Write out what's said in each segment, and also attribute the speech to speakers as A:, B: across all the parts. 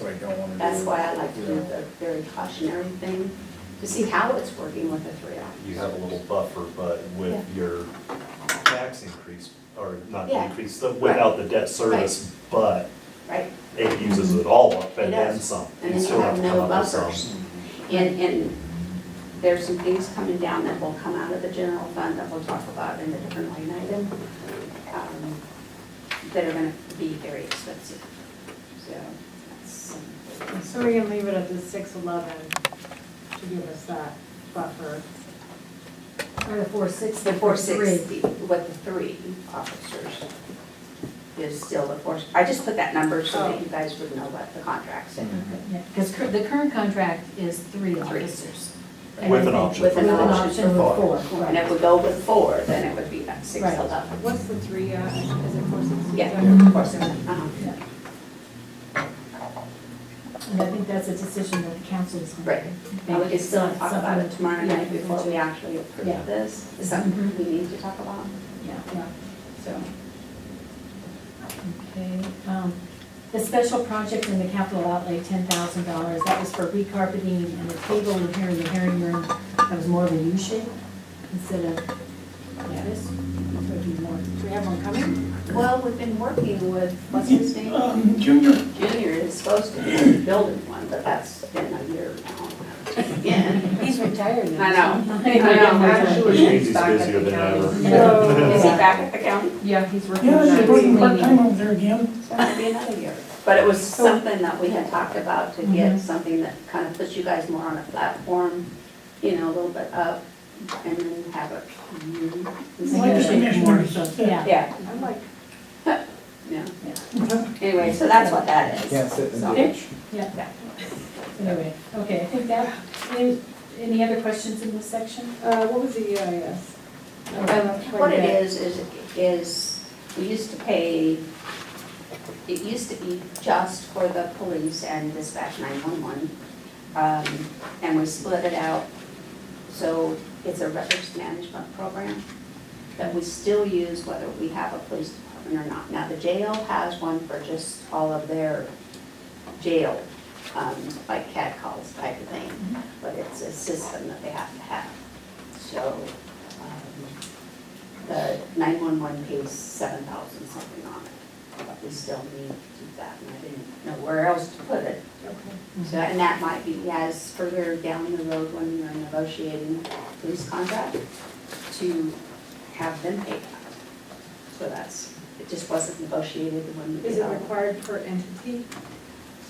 A: what I don't want to do.
B: That's why I like to do
A: Yeah.
B: the very cautionary thing, to see how it's working with the three
C: You
B: options.
C: have a little buffer, but with your tax increase, or not
B: Yeah.
C: increase, so without the debt service, but
B: Right?
C: it uses it all up and
B: It
C: then
B: does.
C: some.
B: And then
C: still
B: you have
C: to come
B: no
C: up with some.
B: buffers. And, and there's some things coming down that will come out of the general fund that we'll talk about in a different line item, um, that are gonna be very expensive. So, that's, um,
D: So we can leave it at the six eleven to give us that buffer. Or the four
B: it's the
D: sixty
B: four
D: for three.
B: sixty, what the three officers is still the four, I just put that number so that you guys would know what the contract's in.
C: Mm-hmm.
A: Mhm.
E: Because the current contract is three officers. And
C: With
E: I
C: an
E: think
C: option
E: With
B: for
E: an
B: four.
E: option for
A: Four.
E: four,
B: And
E: right.
B: if we go with four, then it would be that six
E: Right.
B: eleven.
D: What's the three, uh, is it four sixty?
B: Yeah, of course, uh-huh.
E: Yeah. And I think that's a decision that the council is
B: Right.
E: making.
B: Now, we can still
E: It's
B: talk
E: not
B: about it
E: something-
B: tomorrow night
E: yeah,
B: before we actually
E: Yeah. Mm-hmm.
B: approve this. Is something we need to talk about,
E: Yeah, yeah.
B: so.
E: okay. Um, The special project in the capital outlay, ten thousand dollars, that was for recarpeting and a table in here in the hearing room. That was more of a U shape instead of like this. It would be more-
D: Do we have one coming?
B: Well, we've been working with, what's his name?
A: Um, Junior,
B: Junior is supposed to be building one, but that's been a year now. Yeah,
E: He's retired
B: I know.
E: I
B: know.
C: Daisy's busier than
D: No.
C: ever.
B: Is he back at the county?
E: Yeah, he's working.
A: yeah,
E: on
A: she's
E: that.
A: working part-time over there again.
B: It's gonna be another year. But it was something that we had talked about to get something that kind of puts you guys more on a platform, you know, a little bit up, and then have a. community.
A: Like the commissioners.
E: Yeah.
B: Yeah,
D: I'm like,
B: yeah.
A: Yeah.
B: Anyway, so that's what that is.
F: Can't sit in
B: So-
F: the ditch.
B: Yeah.
E: Anyway, okay, I think that, any, any other questions in this section?
D: uh, what was the EIS? I don't know, quite a
B: What it
D: bit.
B: is, is, is we used to pay, it used to be just for the police and dispatch 911. um, And we split it out, so it's a records management program that we still use whether we have a police department or not. Now, the jail has one for just all of their jail, um, like cat calls type of thing, but it's a system that they have to have. So um, the nine-one-one pays seven thousand something on it, but we still need to do that, and I didn't know where else to put it.
D: Okay.
B: So, and that might be as further down the road when you're negotiating police contract, to have them pay that. So that's, it just wasn't negotiated when we
D: Is it
B: developed.
D: required per entity?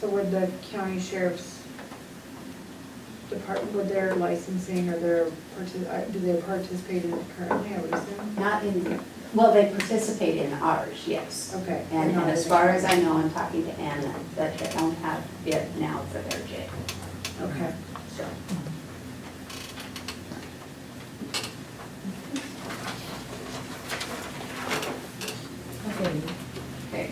D: So would the county sheriff's department, would their licensing or their, parti- uh, do they participate in it currently, I would assume?
B: Not in, well, they participate in ours, yes.
D: Okay.
B: And and as far as I know, I'm talking to Anna, that they don't have it now for their jail,
D: Okay.
B: so.
E: Okay,
B: Okay,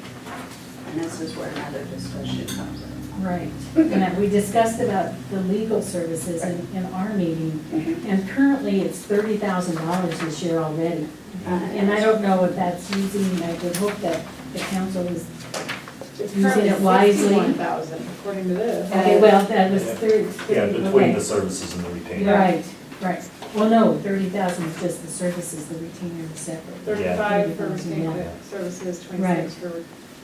B: and this is where another discussion comes in.
E: right. And we discussed about the legal services in, in our meeting, and currently it's thirty thousand dollars this year already. Uh, And I don't know if that's using, I would hope that the council is,
D: It's
E: Using it
D: currently
E: wisely.
D: sixty-one thousand, according to this.
E: okay, well, that was
C: Yeah.
E: thirty.
C: Yeah,
E: okay.
C: between the services and the retainer.
E: Right, right. Well, no, thirty thousand is just the services, the retainer is separate.
D: Thirty-five for
E: Yeah.
D: retained services,
E: Right.
D: twenty-six for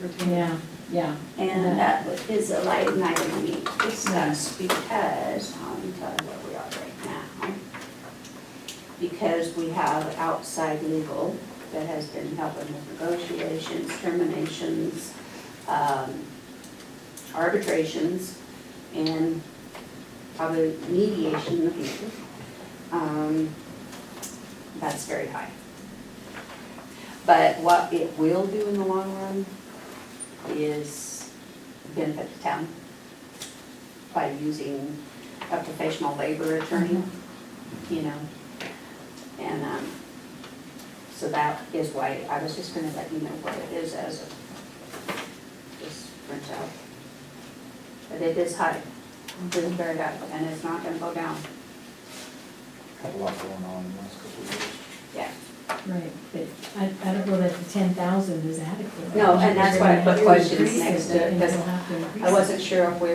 D: retained.
E: Yeah, yeah.
B: And that is a light item we discussed because, I'm telling you where we are right now. Because we have outside legal that has been helping with negotiations, terminations, um, arbitrations, and probably mediation in the future. Um, That's very high. But what it will do in the long run is benefit the town by using a professional labor attorney, you know? And, um, so that is why, I was just gonna let you know what it is as it just prints out. But it is high, it is very high, and it's not gonna go down,
F: Had a lot going on in the last couple of years.
B: yeah.
E: Right, but I, I don't know that the ten thousand is adequate.
B: No, and that's why I put
E: If you're gonna
B: questions
E: increase it,
B: next to it,
E: then
B: 'cause
E: you'll have to increase
B: I
E: it.
B: wasn't sure if we